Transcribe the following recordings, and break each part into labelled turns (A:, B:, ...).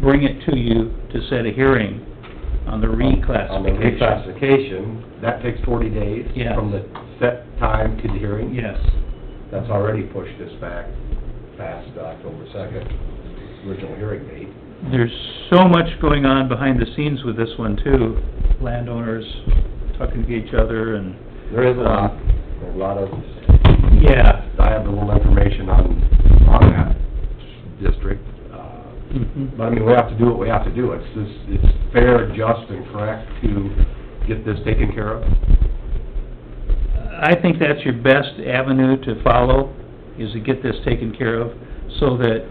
A: bring it to you to set a hearing on the
B: On the
A: reclassification.
B: reclassification, that takes forty days
A: Yeah.
B: from the set time to the hearing.
A: Yes,
B: That's already pushed us back past the October second, original hearing date.
A: there's so much going on behind the scenes with this one too, landowners talking to each other and,
B: There is a lot, Um, a lot of
A: yeah.
B: valuable information on, on that district. Uh, But I mean, we have to do what we have to do. It's, it's, it's fair, just, and correct to get this taken care of.
A: I think that's your best avenue to follow, is to get this taken care of, so that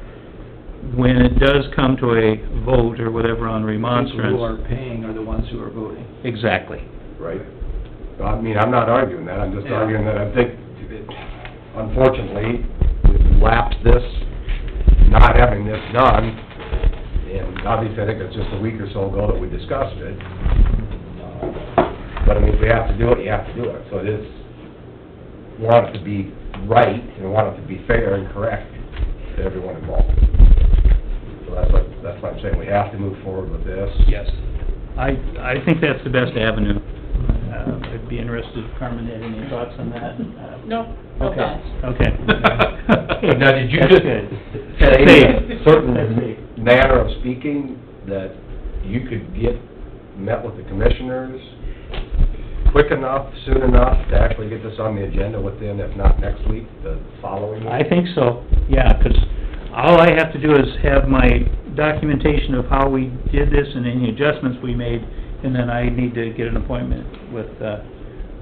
A: when it does come to a vote or whatever on
C: People who
A: remonstrance.
C: are paying are the ones who are voting.
A: Exactly.
B: Right. I mean, I'm not arguing that, I'm just
C: Yeah.
B: arguing that I think, unfortunately, we've lapsed this, not having this done, and obviously, I think it's just a week or so ago that we discussed it. But I mean, if we have to do it, you have to do it, so it is, want it to be right, and want it to be fair and correct to everyone involved. So that's what, that's why I'm saying, we have to move forward with this.
A: Yes. I, I think that's the best avenue. Uh, I'd be interested if Carmen had any thoughts on that.
D: No, no
A: Okay,
D: thoughts.
A: okay.
B: Now, did you
A: That's
B: just
A: good.
B: say in a
A: Safe.
B: certain
A: That's safe.
B: manner of speaking that you could get, met with the commissioners quick enough, soon enough, to actually get this on the agenda within, if not next week, the following
A: I
B: week?
A: think so, yeah, 'cause all I have to do is have my documentation of how we did this and any adjustments we made, and then I need to get an appointment with, uh,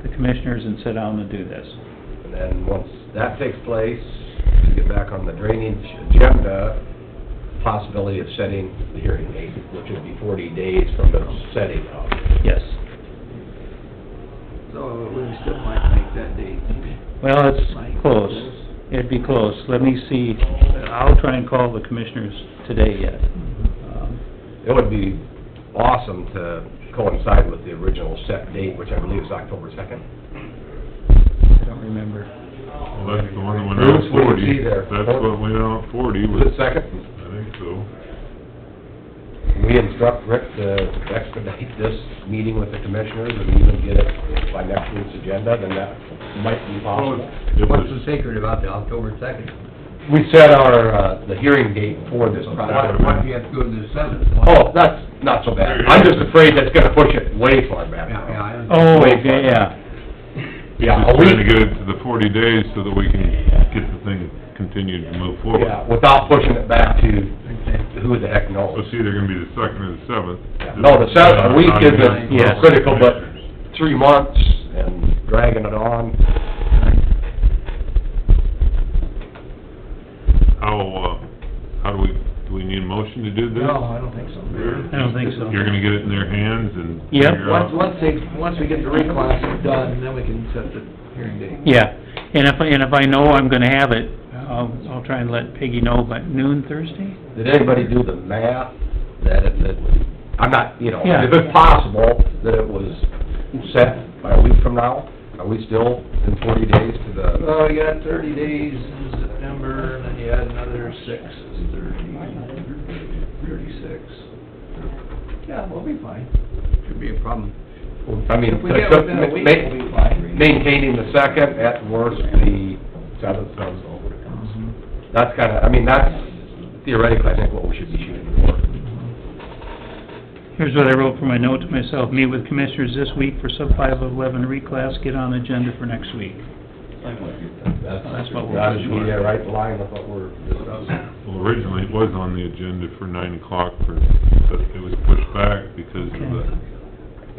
A: the commissioners and sit down and do this.
B: And then, once that takes place, to get back on the drainage agenda, possibility of setting the hearing date, which would be forty days from the setting of.
A: Yes.
C: So we still might make that date.
A: Well, it's close. It'd be close. Let me see, I'll try and call the commissioners today yet. Um,
B: It would be awesome to coincide with the original set date, which I believe is October second.
A: I don't remember.
E: Well, that's the one that went out
B: Bruce, what do
E: forty.
B: you see there?
E: That's what went out forty,
B: Was
E: was,
B: it second?
E: I think so.
B: We instruct Rick to expedite this meeting with the commissioners and even get it by next week's agenda, then that might be possible.
E: It
F: What's the
E: was,
F: secret about the October second?
B: We set our, uh, the hearing date for this
F: Why,
B: project.
F: why do you have to go to the seventh?
B: Oh, that's not so bad. I'm just afraid that's gonna push it way far back.
F: Yeah, yeah, I understand.
A: Oh, okay, yeah,
B: Yeah, a
E: just trying to
B: week,
E: get it to the forty days so that we can get the thing continued to move forward.
B: yeah, without pushing it back to who the heck
E: So
B: knows.
E: It's either gonna be the second or the seventh.
B: No, the seventh, a week isn't
A: Yes.
B: critical, but three months and dragging it on.
E: How, uh, how do we, do we need a motion to do this?
C: No, I don't think so.
A: I don't think so.
E: You're gonna get it in their hands and
A: Yep.
E: figure
C: Once,
E: out...
C: once they, once we get the reclass done, then we can set the hearing date.
A: yeah. And if, I and if I know I'm gonna have it, I'll, I'll try and let Peggy know by noon Thursday?
B: Did anybody do the math that it, that, I'm not, you know,
A: Yeah.
B: if it's possible that it was set by a week from now, are we still in forty days to the,
C: Well, you got thirty days in September, and then you add another six, is thirty, thirty-six. Yeah, we'll be fine.
F: Should be a problem.
B: I mean,
C: If we get within a week, we'll be fine.
B: maintaining the second, at worst, the seventh.
C: Mhm.
A: Mm-hmm.
B: That's kinda, I mean, that's theoretically, I think, what we should be shooting for.
A: Here's what I wrote for my note to myself, meet with commissioners this week for sub five eleven reclass, get on agenda for next week. That's what we're
B: That
A: shooting
B: should be
A: for.
B: right in line with what we're discussing.
E: Well, originally, it was on the agenda for nine o'clock for, but it was pushed back because of the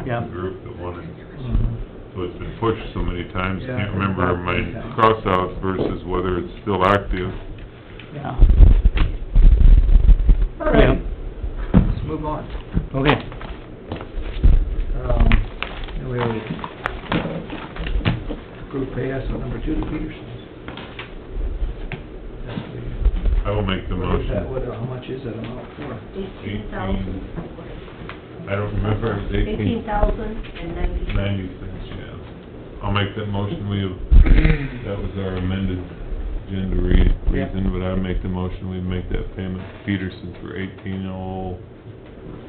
A: Yeah.
E: group that wanted,
C: Mhm.
E: so it's been pushed so many times, I
C: Yeah.
E: can't remember my cross-outs versus whether it's still active.
A: Yeah.
C: All right, let's move on.
A: Okay.
C: Um, and we already uh, approved pay estimate number two to Peterson's. That's the-
E: I will make the
C: What is that,
E: motion.
C: what, uh, how much is that amount for?
E: Eighteen.
G: Eighteen thousand,
E: I don't remember, it was
G: eighteen
E: eighteen
G: thousand and ninety.
E: ninety-six, yeah. I'll make that motion, we have, that was our amended agenda re-
A: Yeah.
E: reason, but I make the motion, we make that payment to Peterson for eighteen oh